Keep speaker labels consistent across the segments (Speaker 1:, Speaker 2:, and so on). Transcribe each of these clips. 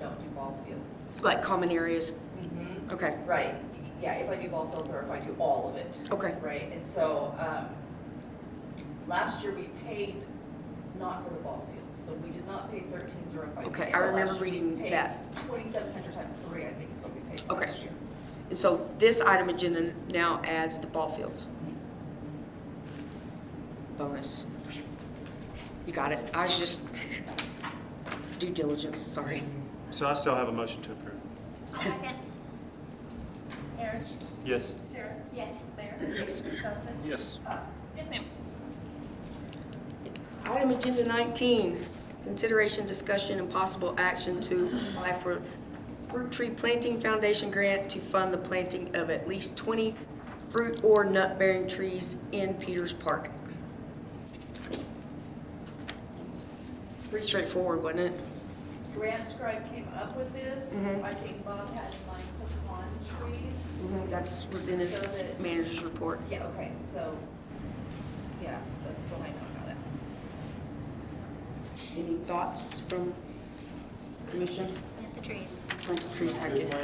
Speaker 1: don't do ball fields.
Speaker 2: like common areas?
Speaker 1: Mhm.
Speaker 2: Okay,
Speaker 1: Right, yeah, if I do ball fields or if I do all of it.
Speaker 2: okay,
Speaker 1: Right, and so, um, last year we paid not for the ball fields, so we did not pay thirteen zero five zero.
Speaker 2: Okay, I remember reading that.
Speaker 1: Twenty-seven hundred times three, I think is what we paid
Speaker 2: Okay.
Speaker 1: last year.
Speaker 2: and so this item agenda now adds the ball fields. Bonus. You got it, I was just, due diligence, sorry.
Speaker 3: So I still have a motion to approve.
Speaker 4: Second.
Speaker 5: Aaron?
Speaker 3: Yes.
Speaker 5: Sarah? Yes. Claire?
Speaker 2: Yes.
Speaker 5: Justin?
Speaker 3: Yes.
Speaker 4: Yes, ma'am.
Speaker 2: Item agenda nineteen, consideration, discussion, and possible action to apply for fruit tree planting foundation grant to fund the planting of at least twenty fruit or nut-bearing trees in Peters Park. Pretty straightforward, wasn't it?
Speaker 1: Grant Scribe came up with this,
Speaker 2: Mhm.
Speaker 1: I think Bob had in mind pecan trees.
Speaker 4: Mm-hmm.
Speaker 2: That's, was in his
Speaker 1: So that-
Speaker 2: manager's report.
Speaker 1: Yeah, okay, so, yes, that's what I know about it.
Speaker 2: Any thoughts from commission?
Speaker 4: Plant the trees.
Speaker 2: Plant the trees, I get-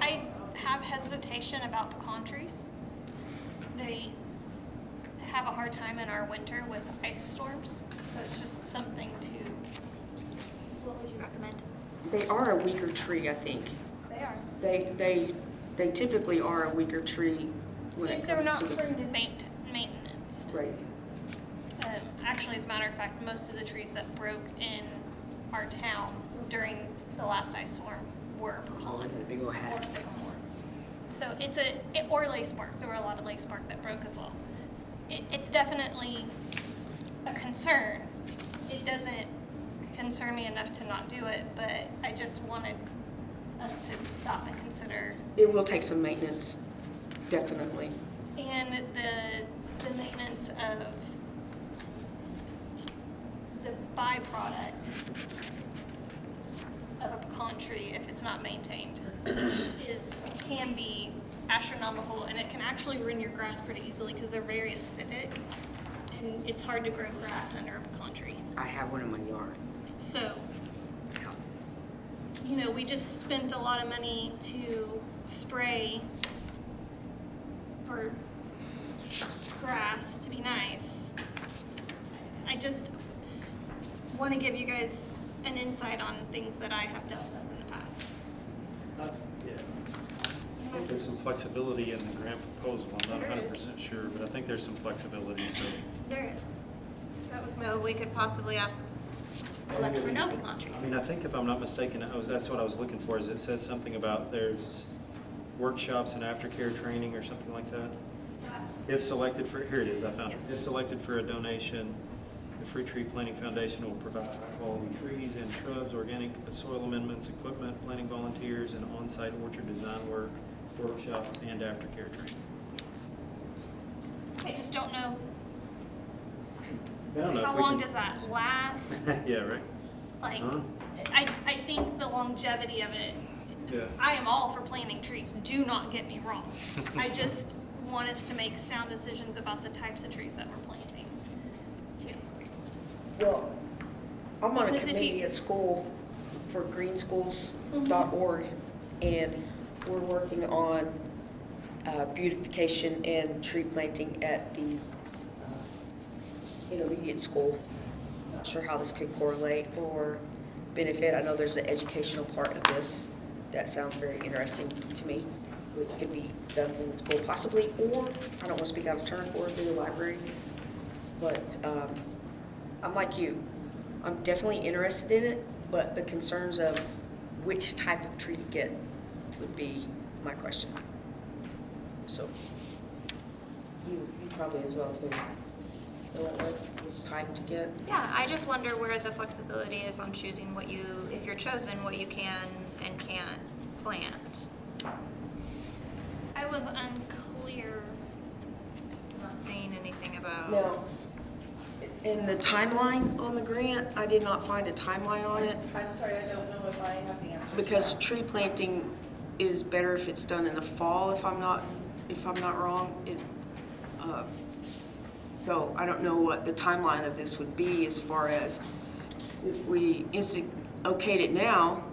Speaker 4: I have hesitation about pecan trees. They have a hard time in our winter with ice storms, so it's just something to. What would you recommend?
Speaker 2: They are a weaker tree, I think.
Speaker 4: They are.
Speaker 2: They, they, they typically are a weaker tree when it
Speaker 4: They're
Speaker 2: comes
Speaker 4: not
Speaker 2: to the.
Speaker 4: maint- maintenance.
Speaker 2: Right.
Speaker 4: Um, actually, as a matter of fact, most of the trees that broke in our town during the last ice storm were pecan.
Speaker 2: Got a big old
Speaker 4: or
Speaker 2: hat.
Speaker 4: sycamore. So it's a, it, or lace bark, there were a lot of lace bark that broke as well. It, it's definitely a concern. It doesn't concern me enough to not do it, but I just wanted us to stop and consider.
Speaker 2: It will take some maintenance, definitely.
Speaker 4: And the, the maintenance of the byproduct of a pecan tree, if it's not maintained, is, can be astronomical, and it can actually ruin your grass pretty easily, because they're very acidic, and it's hard to grow grass under a pecan tree.
Speaker 2: I have one in my yard.
Speaker 4: So, you know, we just spent a lot of money to spray for grass to be nice. I just want to give you guys an insight on things that I have dealt with in the past.
Speaker 3: Yeah. I think There's some flexibility in the grant proposal. I'm not
Speaker 4: There
Speaker 3: hundred
Speaker 4: is.
Speaker 3: percent sure, but I think there's some flexibility, so.
Speaker 4: There is. That was no, we could possibly ask elect for no pecan
Speaker 3: I
Speaker 4: trees.
Speaker 3: mean, I think if I'm not mistaken, I was, that's what I was looking for, is it says something about there's workshops and aftercare training or something like that? If selected for, here it is, I found it. If selected for a donation, the Fruit Tree Planting Foundation will provide high-quality trees and shrubs, organic soil amendments, equipment, planting volunteers, and on-site orchard design work, workshops, and aftercare training.
Speaker 4: I just don't know,
Speaker 3: I don't know if
Speaker 4: how
Speaker 3: we
Speaker 4: long
Speaker 3: can-
Speaker 4: does that last?
Speaker 3: Yeah, right?
Speaker 4: Like,
Speaker 3: Huh?
Speaker 4: I, I think the longevity of it,
Speaker 3: Yeah.
Speaker 4: I am all for planting trees, do not get me wrong. I just want us to make sound decisions about the types of trees that we're planting.
Speaker 2: Well, I'm on a
Speaker 4: Because if you-
Speaker 2: committee at school for greenschools.org, and we're working on uh, beautification and tree planting at the uh, intermediate school. Not sure how this could correlate or benefit. I know there's an educational part of this that sounds very interesting to me, which could be done in the school possibly, or, I don't want to speak out of turn, or through the library. But um, I'm like you. I'm definitely interested in it, but the concerns of which type of tree to get would be my question. So, you, you probably as well too. Know what- what- Which type to get?
Speaker 6: Yeah, I just wonder where the flexibility is on choosing what you, if you're chosen, what you can and can't plant.
Speaker 4: I was unclear,
Speaker 6: I'm not seeing anything about.
Speaker 2: Now, in the timeline on the grant, I did not find a timeline on it
Speaker 1: I'm sorry, I don't know if I have the answer. to
Speaker 2: because
Speaker 1: that.
Speaker 2: tree planting is better if it's done in the fall, if I'm not, if I'm not wrong. It, uh, So I don't know what the timeline of this would be as far as if we insti- okayed it now,